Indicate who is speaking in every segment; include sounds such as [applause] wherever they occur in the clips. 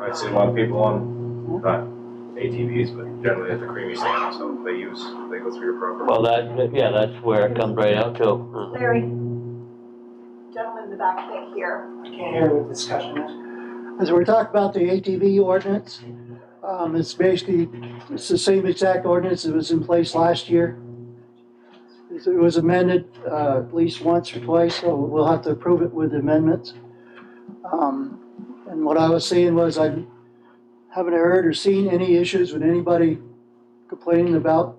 Speaker 1: I see a lot of people on, not ATVs, but generally at the creamy sand, so they use, they go through your program.
Speaker 2: Well, that, yeah, that's where it comes right out to.
Speaker 3: Larry, gentleman in the back can't hear.
Speaker 4: I can't hear what the discussion is.
Speaker 5: As we're talking about the ATV ordinance, um, it's basically, it's the same exact ordinance that was in place last year. It was amended, uh, at least once or twice, so we'll have to approve it with amendments. Um, and what I was seeing was I haven't heard or seen any issues with anybody complaining about,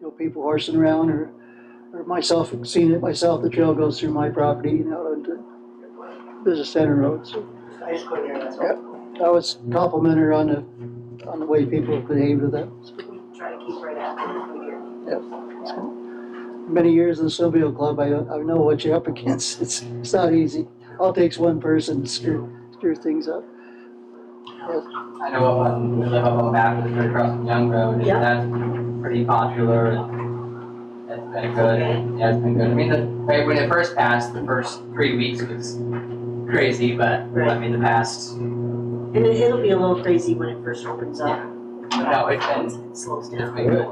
Speaker 5: you know, people horsing around or, or myself, seeing it myself, the trail goes through my property and out onto Business Center Road, so.
Speaker 4: I just couldn't hear, that's
Speaker 5: Yep.
Speaker 4: all.
Speaker 5: I was complimentary on the, on the way people behave with them.
Speaker 3: We Try to keep right after we hear.
Speaker 5: Many years in the snowmobile club, I, I know what you're up against. [laughs] It's, it's not easy. All it takes one person to screw, screw things up.
Speaker 6: I know, um, we live up on Baptist, right across from Young Road, and
Speaker 3: Yeah.
Speaker 6: that's pretty popular, and it's been good, and yeah, it's been good. I mean, the, right, when it first passed, the first three weeks was crazy, but, I
Speaker 7: Right.
Speaker 6: mean, the past,
Speaker 7: And it, it'll be a little crazy when it first opens up.
Speaker 6: no, it's
Speaker 7: It
Speaker 6: been,
Speaker 7: slows
Speaker 6: it's
Speaker 7: down.
Speaker 6: been good.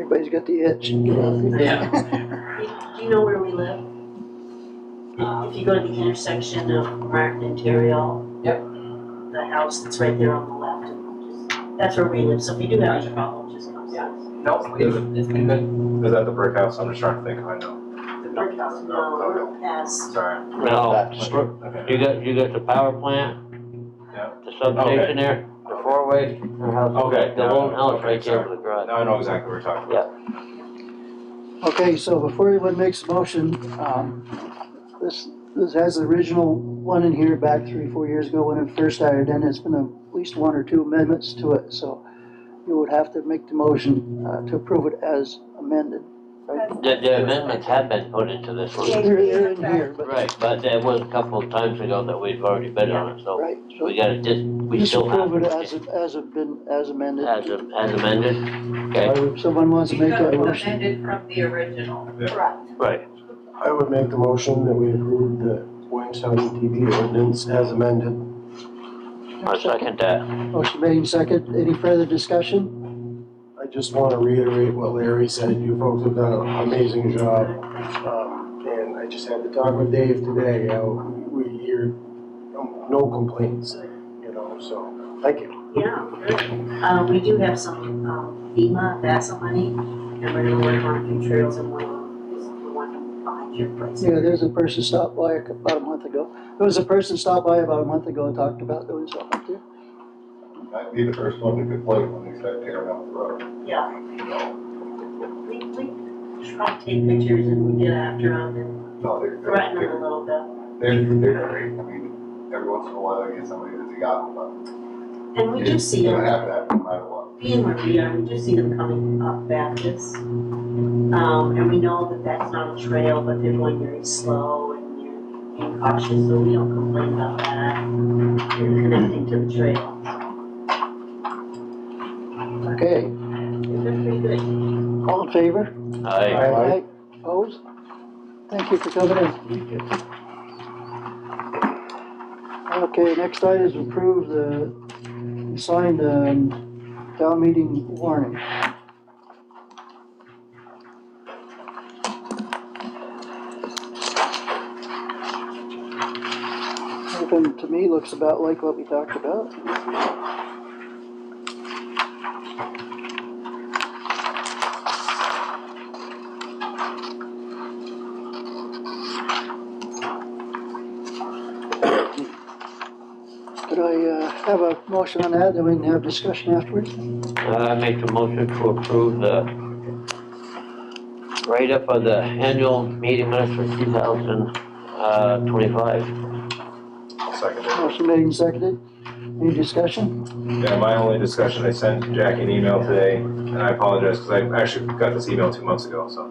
Speaker 5: Everybody's got the itch.
Speaker 6: Yeah.
Speaker 7: You- Do you know where we live? If- If you go to the intersection of Martin and Terrell.
Speaker 6: Yep.
Speaker 7: The house that's right there on the left, and just, that's where we live, so if you do have a problem, just come see us.
Speaker 6: No, we've, it's been good.
Speaker 1: Is that the brick house? I'm just trying to think, I know.
Speaker 7: The brick house, no, we're past,
Speaker 1: Sorry.
Speaker 2: No,
Speaker 1: Okay.
Speaker 2: you got, you got the power plant?
Speaker 1: Yeah.
Speaker 2: The substation there, the four-way, the house,
Speaker 1: Okay,
Speaker 2: the
Speaker 1: now-
Speaker 2: lone house
Speaker 1: okay,
Speaker 2: right there
Speaker 1: sorry.
Speaker 2: with the garage.
Speaker 1: Now I know exactly what we're talking about.
Speaker 5: Okay, so before anyone makes a motion, um, this, this has the original one in here back three, four years ago when it first started, and it's been at least one or two amendments to it, so you would have to make the motion, uh, to approve it as amended.
Speaker 3: That's-
Speaker 2: The, the amendments have been put into this
Speaker 5: They're,
Speaker 2: one.
Speaker 5: they're in here, but,
Speaker 2: Right, but there was a couple of times ago that we've already been on it, so
Speaker 5: right, so
Speaker 2: we gotta just, we
Speaker 5: just
Speaker 2: still have.
Speaker 5: approve it as, it- as it been, as amended.
Speaker 2: As am- as amended, okay,
Speaker 5: Or if Someone wants to make that motion.
Speaker 8: amended from the original.
Speaker 3: Correct.
Speaker 2: right,
Speaker 9: I would make the motion that we approve the Williamstown TV ordinance as amended.
Speaker 2: I second that,
Speaker 5: Motion made and second, any further discussion?
Speaker 9: I just want to reiterate what Larry said, you folks have done an amazing job. Um, And I just had to talk with Dave today, how we hear no- no complaints, you know, so, thank you.
Speaker 7: yeah, good. Uh, we do have some, um, FEMA, VASA money, and we're gonna work on a few trails and one, is the one behind your place.
Speaker 5: Yeah, there's a person stopped by about a month ago. There was a person stopped by about a month ago and talked about doing something up there.
Speaker 10: I'd be the first one to complain when they start tearing up the road.
Speaker 7: Yeah. We, we try to take pictures and we get after them and
Speaker 10: No, they're,
Speaker 7: threaten them a
Speaker 10: they're,
Speaker 7: little bit.
Speaker 10: they're, they're great. I mean, every once in a while I get somebody that's a yahoo,
Speaker 7: And
Speaker 10: but.
Speaker 7: we do
Speaker 10: It's
Speaker 7: see
Speaker 10: gonna
Speaker 7: them,
Speaker 10: happen that no matter what.
Speaker 7: being where we are, we do see them coming up Baptist. Um, and we know that that's not a trail, but they're going very slow and you're being cautious, so we don't complain about that. They're connecting to the trail.
Speaker 5: Okay,
Speaker 7: They're pretty good.
Speaker 5: all in favor?
Speaker 2: aye.
Speaker 5: Aye. Opposed? Thank you for coming in. Okay, next item is approve the, sign the um, town meeting warning. Everything to me looks about like what we talked about. Could I uh, have a motion on that, then we can have discussion afterwards?
Speaker 2: Uh, I make the motion to approve the write-up of the annual meeting minutes for two thousand, uh, twenty-five.
Speaker 1: I'll second it.
Speaker 5: Motion made and seconded. Any discussion?
Speaker 1: Yeah, my only discussion, I sent Jackie an email today, and I apologize, because I actually got this email two months ago, so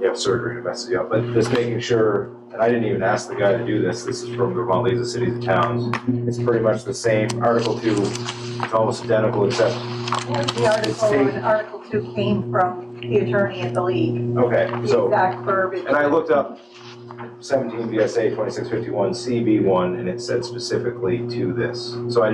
Speaker 1: you have surgery to mess you up, but just making sure, and I didn't even ask the guy to do this, this is from the Vermont League of Cities and Towns. It's pretty much the same, Article Two, it's almost identical, except,
Speaker 3: And The article, and Article Two came from the attorney at the league,
Speaker 1: okay,
Speaker 3: the
Speaker 1: so,
Speaker 3: exact verbiage.
Speaker 1: and I looked up seventeen VSA twenty-six fifty-one CB one, and it said specifically to this. So I